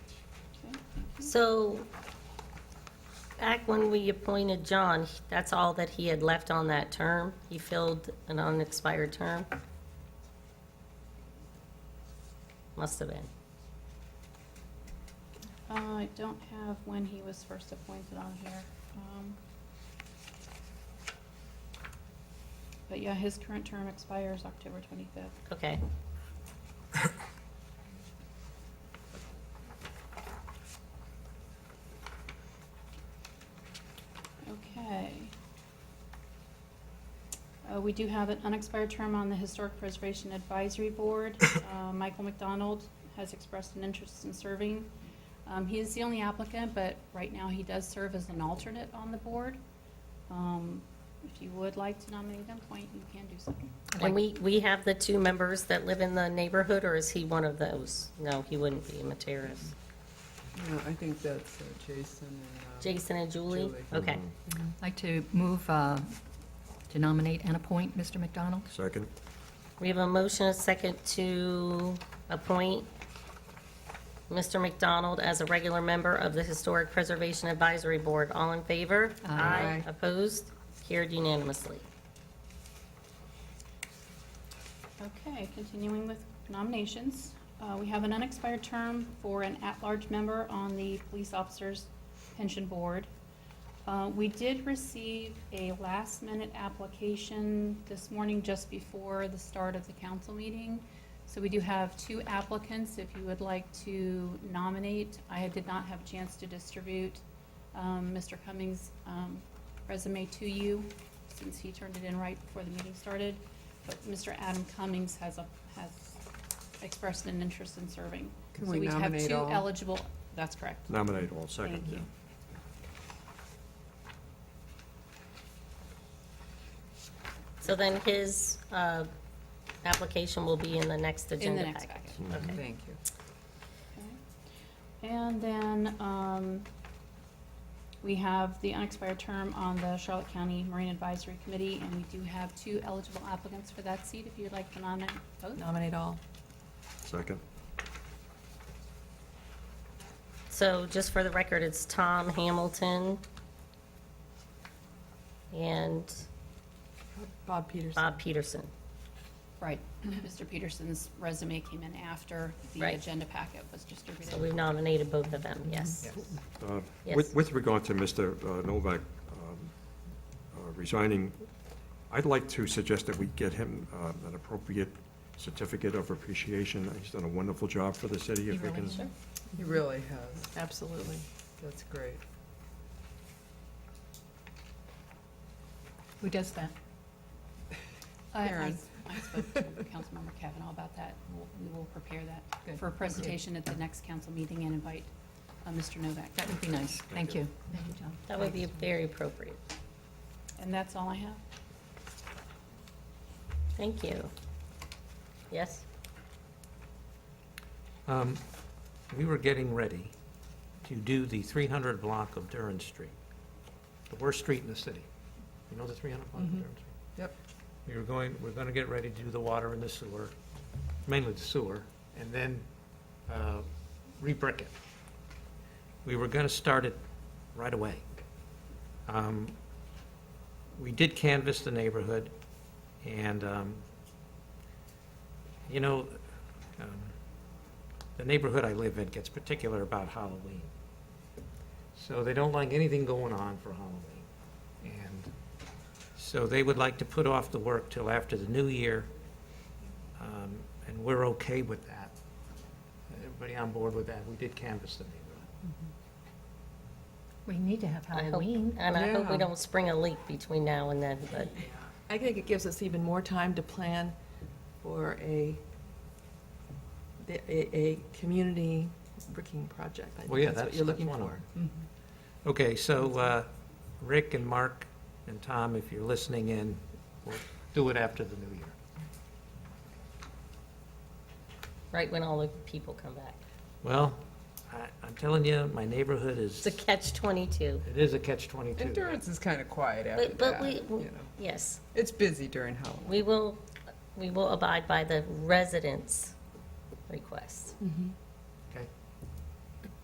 So, back when we appointed John, that's all that he had left on that term? He filled an unexpired term? Must have been. Uh, I don't have when he was first appointed on here. um, But yeah, his current term expires October 25th. Okay. Okay. Uh, We do have an unexpired term on the Historic Preservation Advisory Board. Uh, Michael McDonald has expressed an interest in serving. Um, He is the only applicant, but right now he does serve as an alternate on the board. Um, If you would like to nominate him, point, you can do so. And we, we have the two members that live in the neighborhood, or is he one of those? No, he wouldn't be, Materis. No, I think that's uh, Jason and. uh, Jason and Julie? Julie. Okay. I'd like to move uh, to nominate and appoint Mr. McDonald. Second? We have a motion, a second, to appoint Mr. McDonald as a regular member of the Historic Preservation Advisory Board. All in favor? Aye. Opposed? Carried unanimously. Okay, continuing with nominations, uh, we have an unexpired term for an at-large member on the Police Officers Pension Board. Uh, We did receive a last-minute application this morning just before the start of the council meeting. So we do have two applicants, if you would like to nominate. I did not have a chance to distribute um, Mr. Cummings' um, resume to you, since he turned it in right before the meeting started. But Mr. Adam Cummings has, a- has expressed an interest in serving. Can we So nominate we have all? two eligible, that's correct. Nominate all, second, Thank yeah. you. So then his uh, application will be in the next In the agenda next package. packet. Mm-hmm. Okay. Thank you. Okay. And then, um, we have the unexpired term on the Charlotte County Marine Advisory Committee, and we do have two eligible applicants for that seat, if you'd like to nominate both. Nominate all. Second? So just for the record, it's Tom Hamilton and Bob Peterson. Bob Peterson. Right. Mr. Peterson's resume came in after the Mm-hmm. Right. agenda packet was distributed. So we've nominated both of them, yes. Uh, Yes. With, with regard to Mr. uh, Novak um, uh, resigning, I'd like to suggest that we get him um, an appropriate certificate of appreciation. He's done a wonderful job for the city. If we can, He really has. Absolutely. That's great. Who does that? I- I Karen. I spoke to Councilmember Kavanaugh about that. We'll- We will prepare that Good. for a presentation at the next council meeting and invite uh, Mr. Novak. That would be nice. Thank you. Thank you, John. That would be very appropriate. And that's all I have. Thank you. Yes? Um, We were getting ready to do the 300 block of Durand Street, the worst street in the city. You know the 300 block of Mhm. Durand Street? Yep. We were going, we're going to get ready to do the water and the sewer, mainly the sewer, and then uh, re-brick it. We were going to start it right away. Um, We did canvass the neighborhood, and, um, you know, um, the neighborhood I live in gets particular about Halloween. So they don't like anything going on for Halloween. And so they would like to put off the work till after the new year, um, and we're okay with that. Everybody on board with that? We did canvass the neighborhood. We need to have I hope- Halloween. And I hope we Yeah. don't spring a leak between now and then, but I think it gives us even more time to plan for a, the- a, a community bricking project. I Well, think yeah, that's what that's- you're that's looking one of for. Mm-hmm. Okay, so uh, Rick and Mark and Tom, if you're listening in, we'll do it after the new year. right when all the people come back. Well, I- I'm telling you, my neighborhood is, It's a catch 22. it is a catch-22. Endurance is kind of quiet after But, but that, we, you know. yes, It's busy during Halloween. we will, we will abide by the residents' request. Mhm.